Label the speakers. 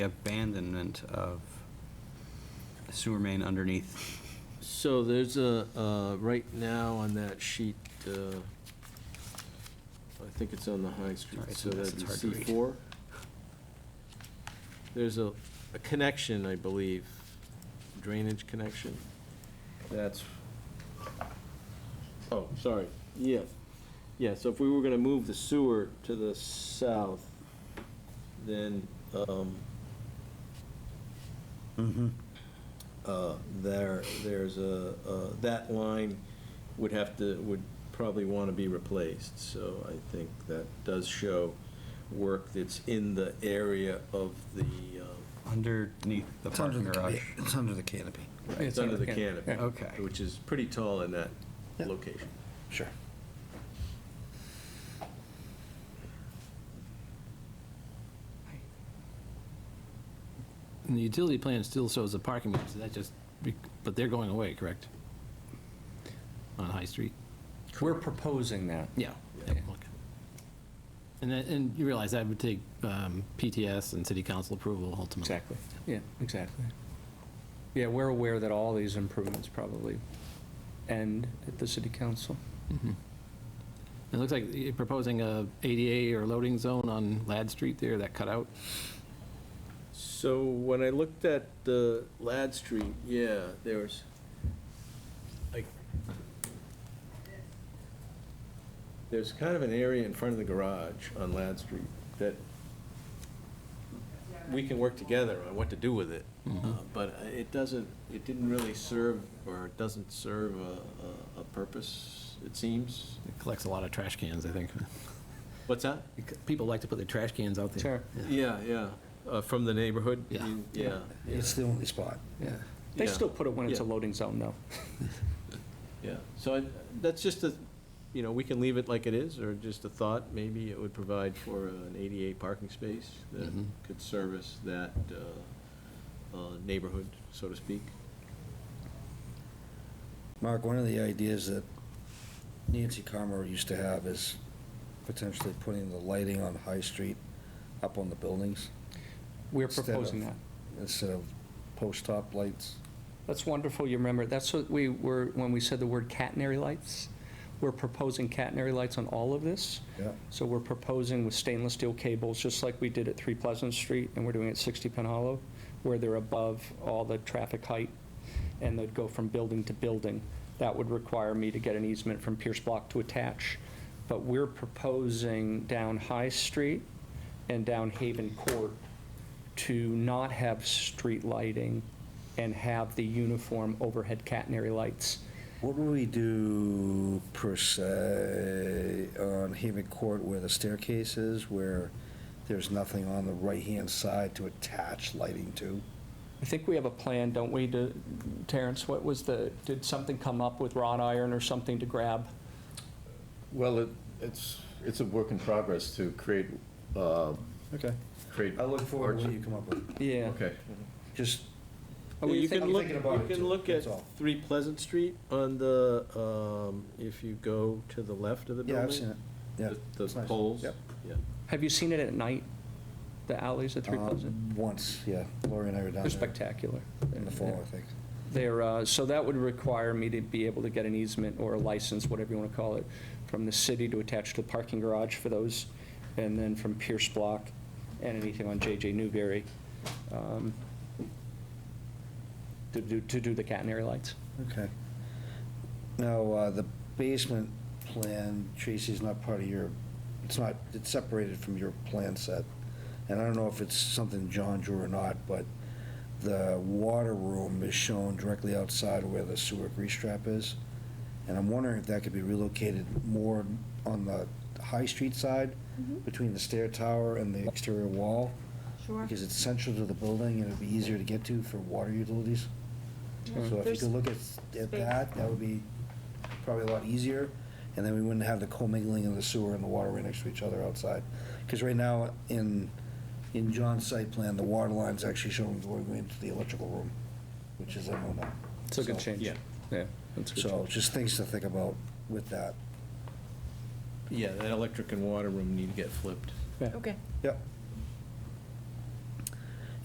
Speaker 1: abandonment of sewer main underneath.
Speaker 2: So there's a, uh, right now on that sheet, uh, I think it's on the High
Speaker 1: Sorry,
Speaker 2: Street,
Speaker 1: it's
Speaker 2: so
Speaker 1: a mess,
Speaker 2: that's
Speaker 1: it's hard to read.
Speaker 2: C4. There's a, a connection, I believe, drainage connection. That's, oh, sorry, yeah. Yeah, so if we were gonna move the sewer to the south, then, um,
Speaker 3: Mm-hmm.
Speaker 2: uh, there, there's a, uh, that line would have to, would probably want to be replaced, so I think that does show work that's in the area of the, um,
Speaker 1: Underneath the
Speaker 3: It's under
Speaker 1: parking
Speaker 3: the
Speaker 1: garage.
Speaker 3: ca- It's under the canopy.
Speaker 2: it's under the canopy.
Speaker 3: yeah.
Speaker 1: Okay.
Speaker 2: Which is pretty tall in that
Speaker 3: Yeah.
Speaker 2: location.
Speaker 3: Sure.
Speaker 4: And the utility plan still shows the parking meters, that just, be- but they're going away, correct? On High Street?
Speaker 3: We're proposing that.
Speaker 4: Yeah. okay. And that, and you realize that would take um, PTS and city council approval ultimately.
Speaker 3: Exactly. Yeah, exactly. Yeah, we're aware that all these improvements probably end at the city council.
Speaker 4: It looks like you're proposing a ADA or loading zone on Lad Street there, that cutout.
Speaker 2: So when I looked at the Lad Street, yeah, there was, like, there's kind of an area in front of the garage on Lad Street that we can work together on what to do with it. Uh, But it doesn't, it didn't really serve, or it doesn't serve a, a, a purpose, it seems.
Speaker 4: It collects a lot of trash cans, I think.
Speaker 2: What's that?
Speaker 4: People like to put their trash cans out there.
Speaker 3: Sure.
Speaker 2: Yeah, yeah, uh, from the neighborhood?
Speaker 4: Yeah.
Speaker 2: You- Yeah.
Speaker 3: It's the only spot. Yeah. They
Speaker 2: Yeah.
Speaker 3: still put it when it's a
Speaker 2: Yeah.
Speaker 3: loading zone, though.
Speaker 2: Yeah, so I- that's just a, you know, we can leave it like it is, or just a thought, maybe it would provide for an ADA parking space that
Speaker 4: Mhm.
Speaker 2: could service that uh, uh, neighborhood, so to speak.
Speaker 5: Mark, one of the ideas that Nancy Carmer used to have is potentially putting the lighting on High Street up on the buildings
Speaker 3: We're
Speaker 5: Instead
Speaker 3: proposing
Speaker 5: of-
Speaker 3: that.
Speaker 5: instead of post-top lights.
Speaker 3: That's wonderful, you remember. That's what we were, when we said the word catenary lights, we're proposing catenary lights on all of this.
Speaker 5: Yeah.
Speaker 3: So we're proposing with stainless steel cables, just like we did at 3 Pleasant Street, and we're doing it at 60 Penn Hollow, where they're above all the traffic height, and they'd go from building to building. That would require me to get an easement from Pierce Block to attach. But we're proposing down High Street and down Haven Court to not have street lighting and have the uniform overhead catenary lights.
Speaker 5: What would we do per se on Haven Court where the staircase is, where there's nothing on the right-hand side to attach lighting to?
Speaker 3: I think we have a plan, don't we, to- Terrence? What was the, did something come up with wrought iron or something to grab?
Speaker 6: Well, it, it's, it's a work in progress to create, uh,
Speaker 5: Okay.
Speaker 6: create.
Speaker 5: I look forward to what
Speaker 6: arch-
Speaker 5: you come up with.
Speaker 3: Yeah.
Speaker 6: Okay.
Speaker 5: Just,
Speaker 3: Are we
Speaker 2: Oh, You
Speaker 3: thinking-
Speaker 2: can
Speaker 5: I'm
Speaker 2: look,
Speaker 5: thinking about
Speaker 2: you
Speaker 5: it
Speaker 2: can
Speaker 5: too,
Speaker 2: look at
Speaker 5: that's all.
Speaker 2: 3 Pleasant Street on the, um, if you go to the left of the building.
Speaker 5: yeah, I've seen it. Yeah.
Speaker 2: The
Speaker 5: it's
Speaker 2: the
Speaker 5: nice.
Speaker 2: poles.
Speaker 5: Yep.
Speaker 2: Yeah.
Speaker 3: Have you seen it at night, the alleys at Three
Speaker 5: Um,
Speaker 3: Pleasant?
Speaker 5: Once, yeah. Lori and I were down
Speaker 3: They're
Speaker 5: there
Speaker 3: spectacular.
Speaker 5: in the fall, I think.
Speaker 3: They're, uh, so that would require me to be able to get an easement or a license, whatever you want to call it, from the city to attach to the parking garage for those, and then from Pierce Block and anything on JJ Newberry um, to do, to do the catenary lights.
Speaker 5: Okay. Now, uh, the basement plan, Tracy, is not part of your, it's not, it's separated from your plan set. And I don't know if it's something John drew or not, but the water room is shown directly outside where the sewer grease trap is. And I'm wondering if that could be relocated more on the High Street side, between the stair tower and the exterior wall,
Speaker 7: Sure.
Speaker 5: because it's central to the building and it'd be easier to get to for water utilities. So if you
Speaker 7: There's-
Speaker 5: could look at, at that, that would be probably a lot easier, and then we wouldn't have the commingling of the sewer and the water right next to each other outside. Because right now, in, in John's site plan, the water line's actually showing going into the electrical room, which is a no-no.
Speaker 3: It's a good
Speaker 5: So-
Speaker 3: change.
Speaker 2: yeah.
Speaker 3: Yeah. that's a good
Speaker 5: So
Speaker 3: change.
Speaker 5: just things to think about with that.
Speaker 2: Yeah, that electric and water room need to get flipped.
Speaker 3: Yeah.
Speaker 7: Okay.
Speaker 5: Yep.